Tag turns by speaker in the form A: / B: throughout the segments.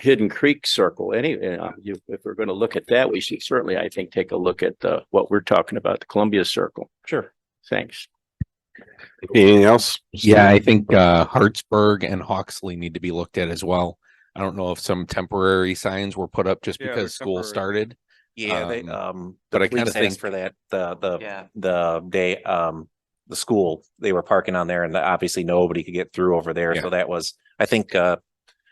A: Hidden Creek Circle, any, uh, you- if we're going to look at that, we should certainly, I think, take a look at, uh, what we're talking about, the Columbia Circle. Sure. Thanks.
B: Anything else?
C: Yeah, I think uh Hartsburg and Hawksley need to be looked at as well. I don't know if some temporary signs were put up just
D: Yeah, they're
C: because school
D: temporary.
C: started.
E: Yeah, they,
C: Um,
E: um,
C: but
E: the
C: I kinda
E: police asked
C: think-
E: for that, the, the,
D: Yeah,
E: the day, um, the school, they were parking on there and obviously nobody could get through over there.
C: Yeah.
E: So that was, I think, uh,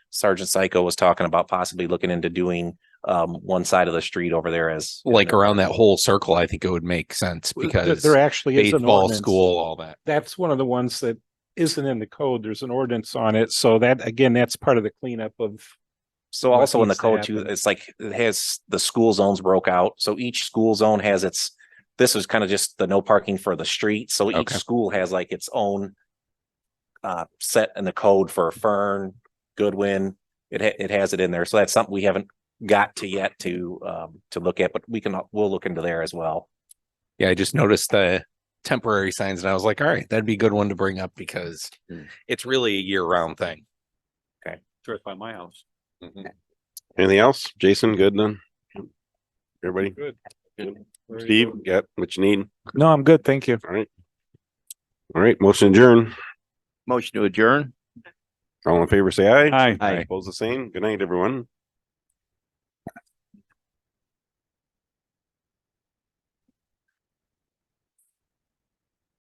E: Sergeant Psycho was talking about possibly looking into doing, um, one side of the street over there as.
C: Like around that whole circle, I think it would make sense
F: Well,
C: because
F: There actually is an
C: baseball,
F: ordinance.
C: school, all that.
F: That's one of the ones that isn't in the code. There's an ordinance on it. So that, again, that's part of the cleanup of.
E: So
F: what
E: also in the
F: needs to
E: code too,
F: happen.
E: it's like, it has, the school zones broke out. So each school zone has its, this is kind of just the no parking for the street. So each
C: Okay.
E: school has like its own uh, set in the code for Fern, Goodwin. It ha- it has it in there. So that's something we haven't got to yet to um, to look at, but we can, we'll look into there as well.
C: Yeah, I just noticed the temporary signs and I was like, all right, that'd be a good one to bring up because
E: Hmm.
C: it's really a year round thing.
D: sure, it's by my house.
B: Anything else? Jason, good then? Everybody?
F: Good.
B: Steve, got what you need?
F: No, I'm good. Thank you.
B: All right. All right, motion adjourn.
A: Motion to adjourn.
B: All in favor, say aye.
F: Hi.
A: Aye.
B: Opposed, the same. Good night, everyone.